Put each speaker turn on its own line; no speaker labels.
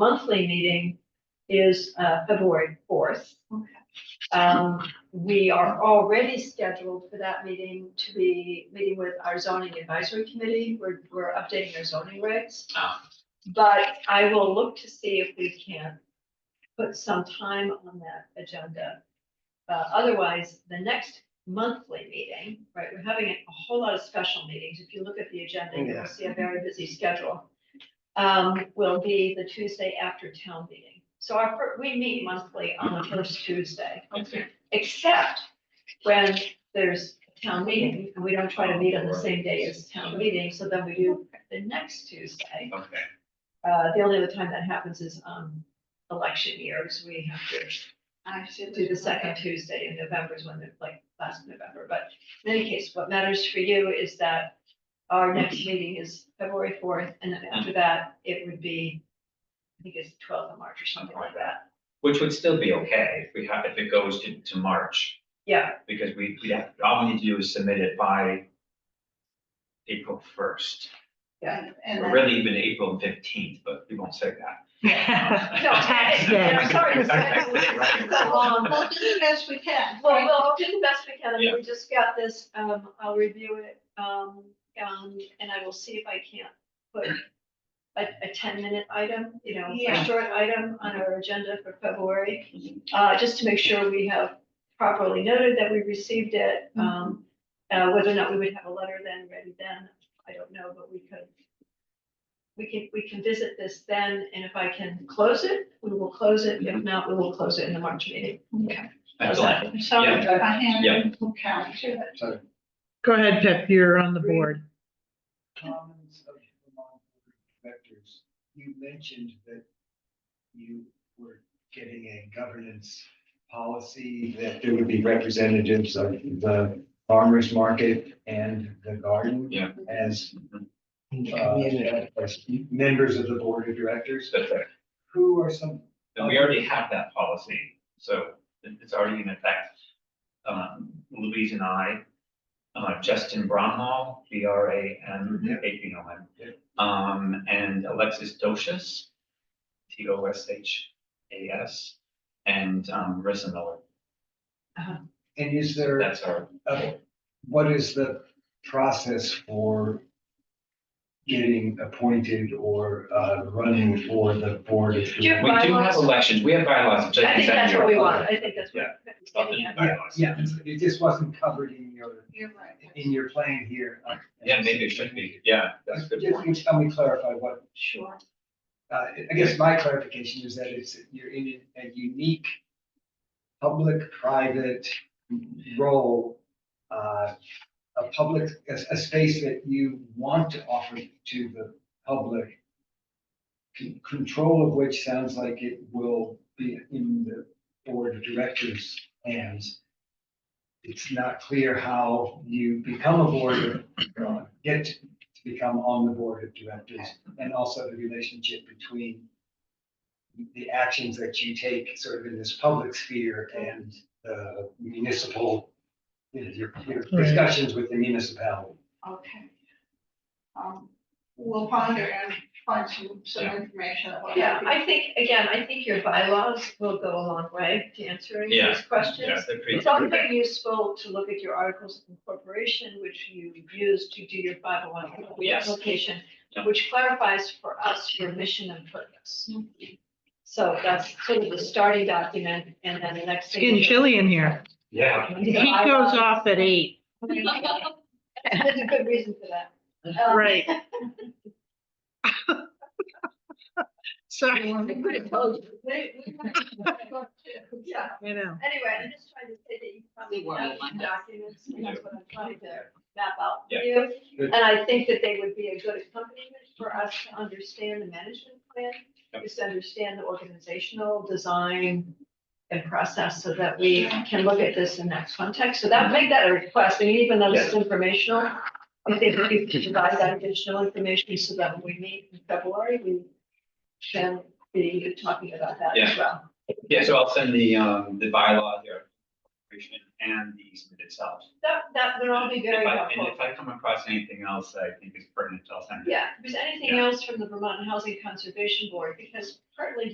monthly meeting is uh, February fourth. Um, we are already scheduled for that meeting to be meeting with our zoning advisory committee. We're, we're updating our zoning regs.
Ah.
But I will look to see if we can put some time on that agenda. Uh, otherwise, the next monthly meeting, right, we're having a whole lot of special meetings. If you look at the agenda, you'll
Yeah.
see a very busy schedule. Um, will be the Tuesday after town meeting. So our, fir- we meet monthly on the first Tuesday
Okay.
except when there's a town meeting, and we don't try to meet on the same day as town meeting, so then we do the next Tuesday.
Okay.
Uh, the only other time that happens is, um, election years, we have to
I should
do the second Tuesday in November is when they're, like, last November, but in any case, what matters for you is that our next meeting is February fourth, and then after that, it would be, I think it's twelfth of March or something like that,
Which would still be okay if we have, if it goes to, to March,
yeah,
because we, we have, all we need to do is submit it by April first,
yeah.
And
or
then,
really even April fifteenth, but we won't say that.
No,
Tax day.
I'm sorry, it's
Right.
so long.
we'll do the best we can.
Well, we'll do the best we can, and we just got this, um, I'll review it, um, um, and I will see if I can put a, a ten minute item, you know, a
Yeah.
short item on our agenda for February, uh, just to make sure we have properly noted that we received it, um, uh, whether or not we would have a letter then, ready then, I don't know, but we could. We can, we can visit this then, and if I can close it, we will close it, if not, we will close it in the March meeting.
That's all.
Sorry,
Yeah.
I hand
Yeah.
people count to it.
Go ahead, Pip, you're on the board.
comments of the Vermont Board of Directors, you mentioned that you were getting a governance policy, that there would be representatives of the farmer's market and the garden
Yeah.
as uh, as members of the Board of Directors.
That's right.
Who are some,
And we already have that policy, so it- it's already in effect. Um, Louise and I, uh, Justin Bronhall, B R A M,
Mhm.
you know him.
Yeah.
Um, and Alexis Doshas, T O S H A S, and, um, Marissa Miller,
and is there,
that's our.
uh, what is the process for getting appointed or uh, running for the Board of
you-
Directors?
We do have
bylaws.
elections, we have bylaws. which
I think that's what we want, I think that's
Yeah.
what. that's what
Up
we're
in
getting at.
bylaws.
Yeah, it just wasn't covered in your,
You're right.
in your plan here.
Yeah, maybe it should be, yeah, that's a good
Just
point.
can you tell me clarify what,
Sure.
uh, I guess my clarification is that it's, you're in a unique public-private role, uh, a public, a, a space that you want to offer to the public, con- control of which sounds like it will be in the board of directors' hands. It's not clear how you become a board, uh, get to become on the board of directors, and also the relationship between the actions that you take sort of in this public sphere and the municipal, you know, your, your discussions with the municipality.
Okay. Um, we'll ponder and find some, some
Yeah.
information. that will
Yeah,
help you.
I think, again, I think your bylaws will go a long way to answering
Yeah,
these questions.
Yeah, they're pretty-
It's also useful to look at your articles of incorporation, which you use to do your five oh one
Yes.
application,
Yeah.
which clarifies for us your mission and purpose.
Mhm.
So that's sort of the starting document, and then the next thing.
Getting
is-
chilly in here.
Yeah,
He goes off at eight.
There's a good reason for that. Um,
Right. Sorry,
I could have told you. We- we- Yeah.
you know,
Anyway, I'm just trying to say that you probably
They were
have
online.
documents, and that's what I'm trying to map out for
Yeah.
you.
Good.
And I think that they would be a good accompaniment for us to understand the management plan,
Yep.
just to understand the organizational design and process so that we can look at this in that context. So that, make that a request, and even though this is informational, I think we can provide that additional information so that when we meet in February, we can be talking about that as well.
yeah, so I'll send the, um, the bylaw here, information and the easement itself.
That, that would all be very
If I-
helpful.
And if I come across anything else that I think is pertinent, I'll send it.
Yeah, if there's anything
Yeah.
else from the Vermont Housing Conservation Board, because partly